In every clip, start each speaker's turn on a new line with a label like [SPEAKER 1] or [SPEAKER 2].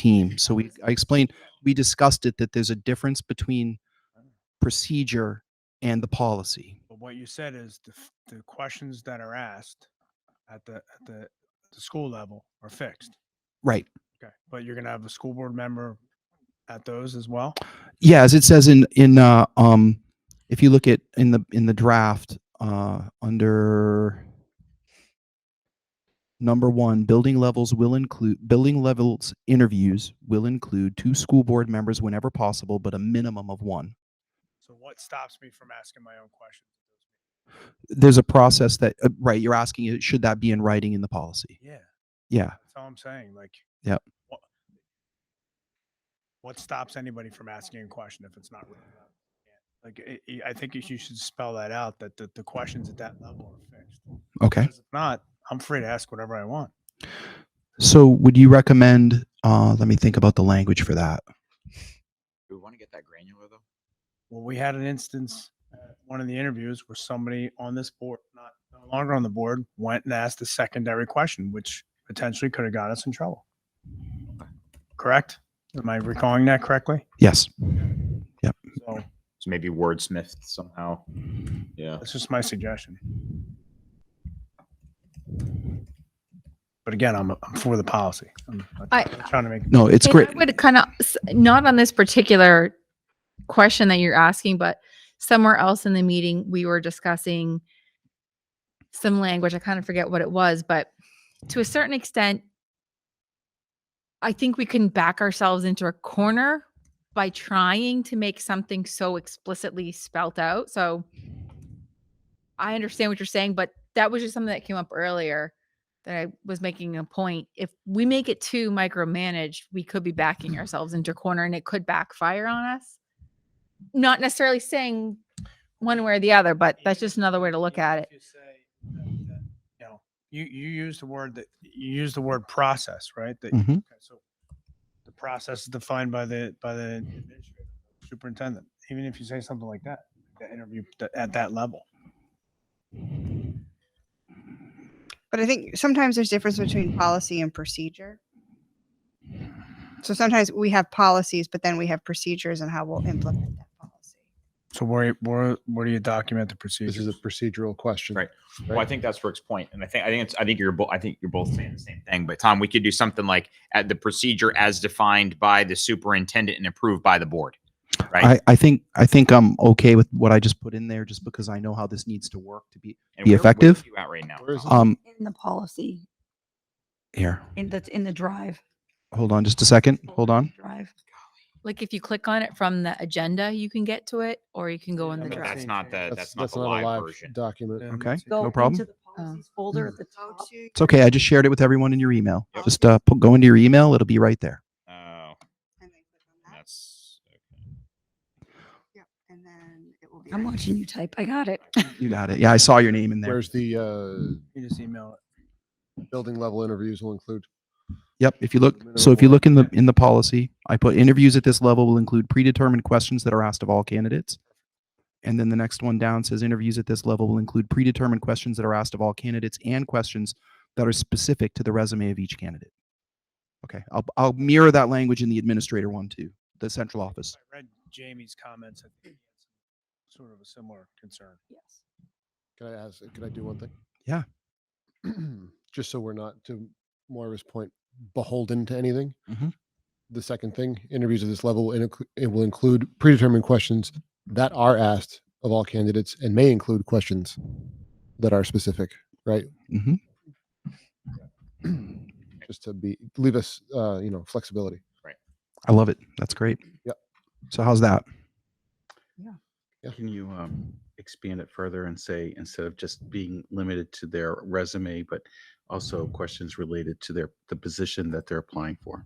[SPEAKER 1] team. So we I explained we discussed it that there's a difference between procedure and the policy.
[SPEAKER 2] But what you said is the, f- the questions that are asked at the, at the, the school level are fixed.
[SPEAKER 1] Right.
[SPEAKER 2] Okay. But you're going to have a school board member at those as well?
[SPEAKER 1] Yeah, as it says in in uh, um if you look at in the in the draft uh under number 1 building levels will include building levels interviews will include two school board members whenever possible but a minimum of one.
[SPEAKER 2] So what stops me from asking my own questions?
[SPEAKER 1] There's a process that uh, right you're asking uh, should that be in writing in the policy.
[SPEAKER 2] Yeah.
[SPEAKER 1] Yeah.
[SPEAKER 2] That's all I'm saying. Like,
[SPEAKER 1] Yep.
[SPEAKER 2] What, what stops anybody from asking a question if it's not written out? Like, it, it- I think you sh- you should spell that out that the, the questions at that level are fixed.
[SPEAKER 1] Okay.
[SPEAKER 2] Because If not, I'm free to ask whatever I want.
[SPEAKER 1] So would you recommend uh let me think about the language for that.
[SPEAKER 3] Do we want to get that granular though?
[SPEAKER 2] Well, we had an instance, at one of the interviews where somebody on this board, not no longer on the board, went and asked a secondary question, which potentially could have got us in trouble. Correct? Am I recalling that correctly?
[SPEAKER 1] Yes.
[SPEAKER 2] So
[SPEAKER 3] So maybe wordsmith somehow. Yeah.
[SPEAKER 2] that's just my suggestion. But again, I'm, I'm for the policy. I'm, I'm
[SPEAKER 4] I-
[SPEAKER 2] trying to make.
[SPEAKER 1] No, it's
[SPEAKER 4] And
[SPEAKER 1] great.
[SPEAKER 4] I would kind of not on this particular question that you're asking, but somewhere else in the meeting we were discussing some language. I kind of forget what it was, but to a certain extent, I think we can back ourselves into a corner by trying to make something so explicitly spelt out. So I understand what you're saying, but that was just something that came up earlier that I was making a point. If we make it too micromanaged, we could be backing ourselves into a corner and it could backfire on us. Not necessarily saying one way or the other, but that's just another way to look
[SPEAKER 2] even
[SPEAKER 4] at
[SPEAKER 2] if
[SPEAKER 4] it.
[SPEAKER 2] you say that- that, You know, you, you use the word that, you use the word process, right? That,
[SPEAKER 1] Mhm.
[SPEAKER 2] okay, so the process is defined by the, by the administrator, superintendent, even if you say something like that, the interview th- at that level.
[SPEAKER 5] But I think sometimes there's difference between policy and procedure. So sometimes we have policies, but then we have procedures and how we'll implement that policy.
[SPEAKER 2] So where, where, where do you document the
[SPEAKER 6] This is
[SPEAKER 2] procedures?
[SPEAKER 6] a procedural question.
[SPEAKER 3] Right. Well, I think that's Rick's point, and I think I think it's I think you're both I think you're both saying the same thing. But Tom, we could do something like at the procedure as defined by the superintendent and approved by the board, right?
[SPEAKER 1] I, I think I think I'm okay with what I just put in there, just because I know how this needs to work to be
[SPEAKER 3] and
[SPEAKER 1] be
[SPEAKER 3] where- where are
[SPEAKER 1] effective?
[SPEAKER 3] you at right now?
[SPEAKER 6] Where is
[SPEAKER 3] Tom?
[SPEAKER 1] um
[SPEAKER 7] in the policy,
[SPEAKER 1] here.
[SPEAKER 7] in the, in the drive.
[SPEAKER 1] Hold on, just a second. Hold on.
[SPEAKER 7] Drive.
[SPEAKER 4] Like if you click on it from the agenda, you can get to it, or you can go in
[SPEAKER 2] Yeah,
[SPEAKER 4] the
[SPEAKER 2] but
[SPEAKER 4] drive.
[SPEAKER 3] that's not the that's, not the
[SPEAKER 6] a
[SPEAKER 3] live,
[SPEAKER 6] live
[SPEAKER 3] version.
[SPEAKER 6] Document. Mm-hmm.
[SPEAKER 1] Okay. No
[SPEAKER 7] Go into
[SPEAKER 1] problem. Hmm.
[SPEAKER 7] the policies Folder at the top.
[SPEAKER 1] It's okay. I just shared it with everyone in your email.
[SPEAKER 3] Yep.
[SPEAKER 1] Just uh, put, go into your email. It'll be right there.
[SPEAKER 3] Oh, that's
[SPEAKER 5] And then it will be.
[SPEAKER 7] I'm
[SPEAKER 5] ready.
[SPEAKER 7] watching you type. I got it.
[SPEAKER 1] You got it. Yeah, I saw your name in there.
[SPEAKER 6] Where's the uh,
[SPEAKER 2] You just email it.
[SPEAKER 6] building level interviews will include?
[SPEAKER 1] Yep. If you look, so if you look in the in the policy, I put interviews at this level will include predetermined questions that are asked of all candidates. And then the next one down says interviews at this level will include predetermined questions that are asked of all candidates and questions that are specific to the resume of each candidate. Okay, I'll I'll mirror that language in the administrator one too, the central office.
[SPEAKER 2] I read Jamie's comments. I think he had Sort of a similar concern.
[SPEAKER 7] Yes.
[SPEAKER 6] Can I ask, can I do one thing?
[SPEAKER 1] Yeah.
[SPEAKER 6] Just so we're not, to Moira's point, beholden to anything.
[SPEAKER 1] Mhm.
[SPEAKER 6] The second thing, interviews at this level, will inclu- it will include predetermined questions that are asked of all candidates and may include questions that are specific, right?
[SPEAKER 1] hmm
[SPEAKER 6] Just to be, leave us, uh, you know, flexibility.
[SPEAKER 1] I love it. That's great.
[SPEAKER 6] Yep.
[SPEAKER 1] So how's that?
[SPEAKER 8] Can you um, expand it further and say, instead of just being limited to their resume, but also questions related to their, the position that they're applying for?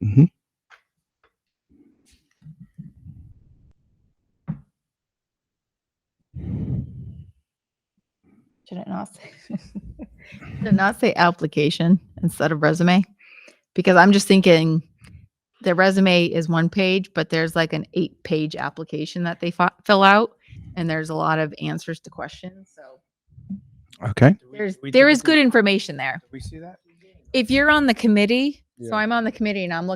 [SPEAKER 1] hmm
[SPEAKER 4] Should it not say? Should it not say application instead of resume? Because I'm just thinking the resume is one page, but there's like an eight page application that they fi- fill out, and there's a lot of answers to questions. So
[SPEAKER 1] Okay.
[SPEAKER 2] Do we-
[SPEAKER 4] there's
[SPEAKER 2] do we
[SPEAKER 4] there is
[SPEAKER 2] typically-
[SPEAKER 4] good information there.
[SPEAKER 2] Do we see that?
[SPEAKER 4] If you're on the committee,
[SPEAKER 6] Yeah.
[SPEAKER 4] so I'm on the committee and I'm looking